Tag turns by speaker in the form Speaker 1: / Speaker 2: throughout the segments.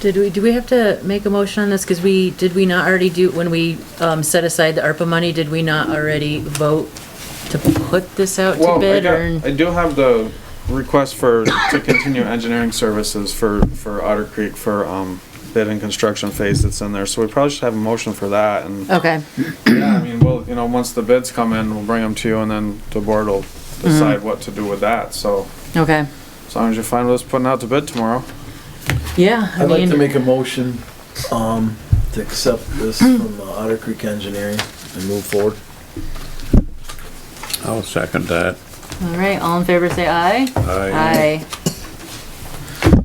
Speaker 1: Did we, do we have to make a motion on this? Because we, did we not already do, when we um, set aside the ARPA money, did we not already vote to put this out to
Speaker 2: Well, I,
Speaker 1: bid
Speaker 2: got, I
Speaker 1: or?
Speaker 2: do have the request for, to continue engineering services for, for Otter Creek for, um, bid and construction phase that's in there, so we probably should have a motion for that, and,
Speaker 1: Okay,
Speaker 2: yeah, I mean, well, you know, once the bids come in, we'll bring them to you, and then the board will
Speaker 1: Mm-hmm.
Speaker 2: decide what to do with that, so,
Speaker 1: okay.
Speaker 2: as long as you're fine with us putting out the bid tomorrow.
Speaker 1: Yeah, I
Speaker 3: I'd like to
Speaker 1: mean,
Speaker 3: make a motion, um, to accept this
Speaker 1: Hmm.
Speaker 3: from uh, Otter Creek Engineering and move forward.
Speaker 4: I'll second that.
Speaker 1: all right, all in favor, say aye. Aye.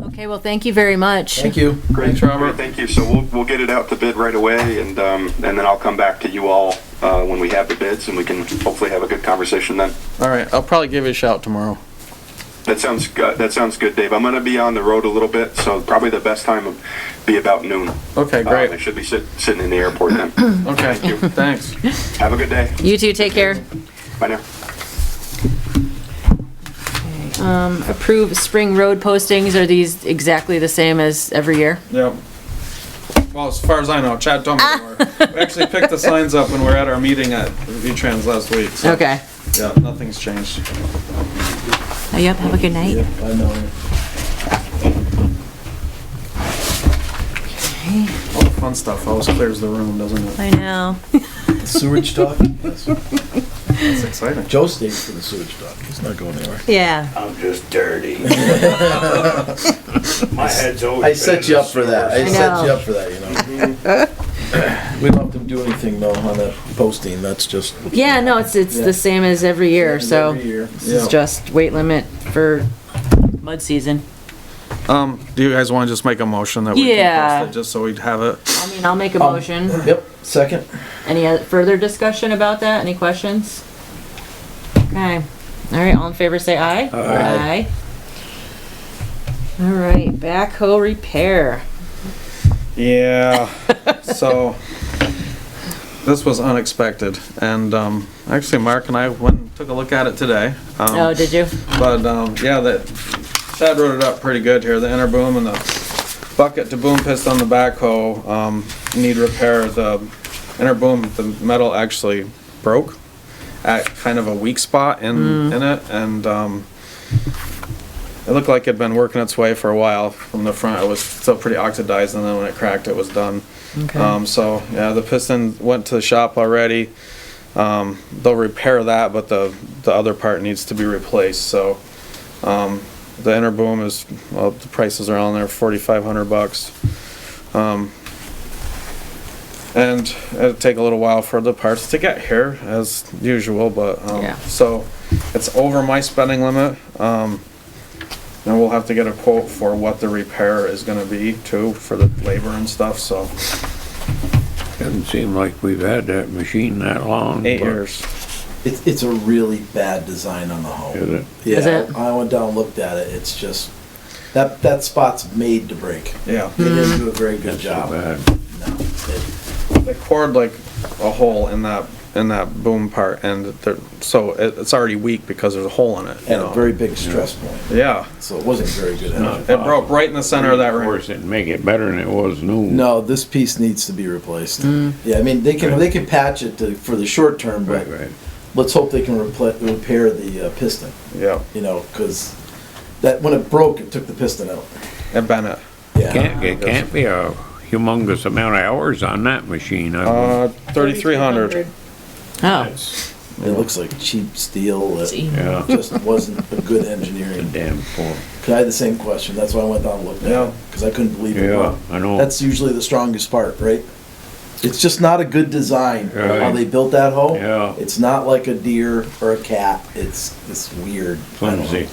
Speaker 1: Okay, well, thank you very much.
Speaker 3: Thank you.
Speaker 2: Thanks, Robert.
Speaker 5: Thank you. So we'll, we'll get it out to bid right away and, um, and then I'll come back to you all, uh, when we have the bids and we can hopefully have a good conversation then.
Speaker 2: All right, I'll probably give you a shout tomorrow.
Speaker 5: That sounds good. That sounds good, Dave. I'm going to be on the road a little bit, so probably the best time would be about noon.
Speaker 2: Okay,
Speaker 5: Uh, I
Speaker 2: great,
Speaker 5: should be sit, sitting in the airport then.
Speaker 2: okay,
Speaker 5: you.
Speaker 2: thanks.
Speaker 5: have a good day.
Speaker 1: You too, take care.
Speaker 5: Bye now.
Speaker 1: Um, approve spring road postings, are these exactly the same as every year?
Speaker 2: Yep. Well, as far as I know, Chad told me they were. We actually picked the signs up when we were at our meeting at V-Trans last week, so.
Speaker 1: Okay.
Speaker 2: Yeah, nothing's changed.
Speaker 1: Oh, Yep, have a good night.
Speaker 3: Yep, I know.
Speaker 2: All the fun stuff always clears the room, doesn't it?
Speaker 1: I know.
Speaker 3: Sewage talk? Yes.
Speaker 1: Mm-hmm.
Speaker 2: It's exciting.
Speaker 3: Joe stays for the sewage talk. He's not going anywhere.
Speaker 1: Yeah.
Speaker 6: I'm just dirty. My head's always.
Speaker 3: I set you up for that. I
Speaker 1: I
Speaker 3: set you
Speaker 1: know.
Speaker 3: up for that, you know? We don't have to do anything though on that posting. That's just.
Speaker 1: Yeah, no, it's, it's
Speaker 3: Yeah.
Speaker 1: the same as every year, so.
Speaker 3: Every year.
Speaker 1: This is
Speaker 3: Yeah.
Speaker 1: just weight limit for mud season.
Speaker 2: Um, do you guys want to just make a motion that we
Speaker 1: Yeah.
Speaker 2: can post it, just so we'd have it?
Speaker 1: I mean, I'll make
Speaker 3: Oh.
Speaker 1: a motion.
Speaker 3: Yep, second.
Speaker 1: Any oth- further discussion about that? Any questions? Okay, all right, all in favor, say aye. Aye.
Speaker 3: Aye.
Speaker 1: All right, backhoe repair.
Speaker 2: Yeah, so, this was unexpected, and, um, actually, Mark and I went and took a look at it today. Um,
Speaker 1: Oh, did you?
Speaker 2: But um, yeah, that Chad wrote it up pretty good here. The inner boom and the bucket to boom piston on the backhoe um, need repair. The inner boom, the metal actually broke at kind of a weak spot in in it, and um, it looked like it had been working its way for a while. From the front, it was still pretty oxidized, and then when it cracked, it was done. Um, so yeah, the piston went to the shop already. Um, they'll repair that, but the, the other part needs to be replaced, so, um, the inner boom is, well, the prices are on there, forty-five hundred bucks. Um, and it'll take a little while for the parts to get here, as usual, but,
Speaker 1: Yeah.
Speaker 2: um, so, it's over my spending limit, um, and we'll have to get a quote for what the repair is gonna be too, for the labor and stuff, so,
Speaker 4: Doesn't seem like we've had that machine that long.
Speaker 2: eight
Speaker 4: but-
Speaker 2: years.
Speaker 3: It's, it's a really bad design on the hoe.
Speaker 4: Is it?
Speaker 3: Yeah,
Speaker 1: Is it?
Speaker 3: I went down and looked at it. It's just that that spot's made to break.
Speaker 2: Yeah.
Speaker 3: They
Speaker 1: Hmm.
Speaker 3: didn't do a very good job.
Speaker 4: Bad.
Speaker 3: No, it-
Speaker 2: they cored like a hole in that in that boom part, and they're, so it, it's already weak because there's a hole in it. You
Speaker 3: and a
Speaker 2: know?
Speaker 3: very big stress point.
Speaker 2: yeah,
Speaker 3: So it wasn't very good. engine.
Speaker 2: it broke right in the center of that
Speaker 4: Of
Speaker 2: ring.
Speaker 4: course, it'd make it better than it was new.
Speaker 3: No, this piece needs to be replaced. Yeah, I mean they can they can patch it to, for the short term, but
Speaker 4: Right, right.
Speaker 3: let's hope they can repl- repair the uh, piston.
Speaker 2: Yeah,
Speaker 3: You know, because that when it broke, it took the piston out.
Speaker 2: and Bennett.
Speaker 3: Yeah,
Speaker 4: Can't, it can't be a humongous amount of hours on that machine. I
Speaker 2: Uh,
Speaker 4: would-
Speaker 2: thirty-three hundred.
Speaker 1: Oh.
Speaker 3: it looks like cheap steel. It
Speaker 4: Yeah, it's
Speaker 3: just wasn't a good
Speaker 4: a
Speaker 3: engineering.
Speaker 4: damn fool.
Speaker 3: Cause I had the same question. That's why I went down and looked at
Speaker 2: Yeah.
Speaker 3: it. Cause I couldn't believe it.
Speaker 4: Yeah, I know.
Speaker 3: That's usually the strongest part, right? It's just not a good design,
Speaker 4: Yeah.
Speaker 3: how they built that hole.
Speaker 4: Yeah.
Speaker 3: It's not like a deer or a cat. It's, it's weird. I don't know.
Speaker 4: Flimsy.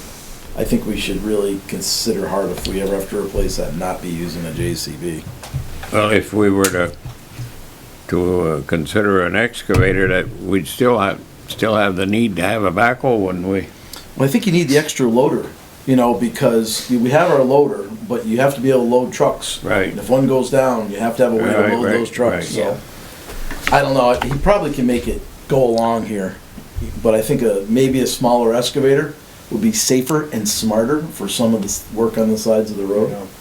Speaker 3: I think we should really consider hard if we ever have to replace that, not be using a JCB.
Speaker 4: Well, if we were to, to uh, consider an excavator, that we'd still have, still have the need to have a backhoe, wouldn't we?
Speaker 3: Well, I think you need the extra loader, you know, because we have our loader, but you have to be able to load trucks.
Speaker 4: Right.
Speaker 3: And if one goes down, you have to have a way
Speaker 4: Right,
Speaker 3: to load
Speaker 4: right,
Speaker 3: those trucks.
Speaker 4: right,
Speaker 3: So I don't know. He probably can make it go along here, but I think a, maybe a smaller excavator would be safer and smarter for some of this work on the sides of the road.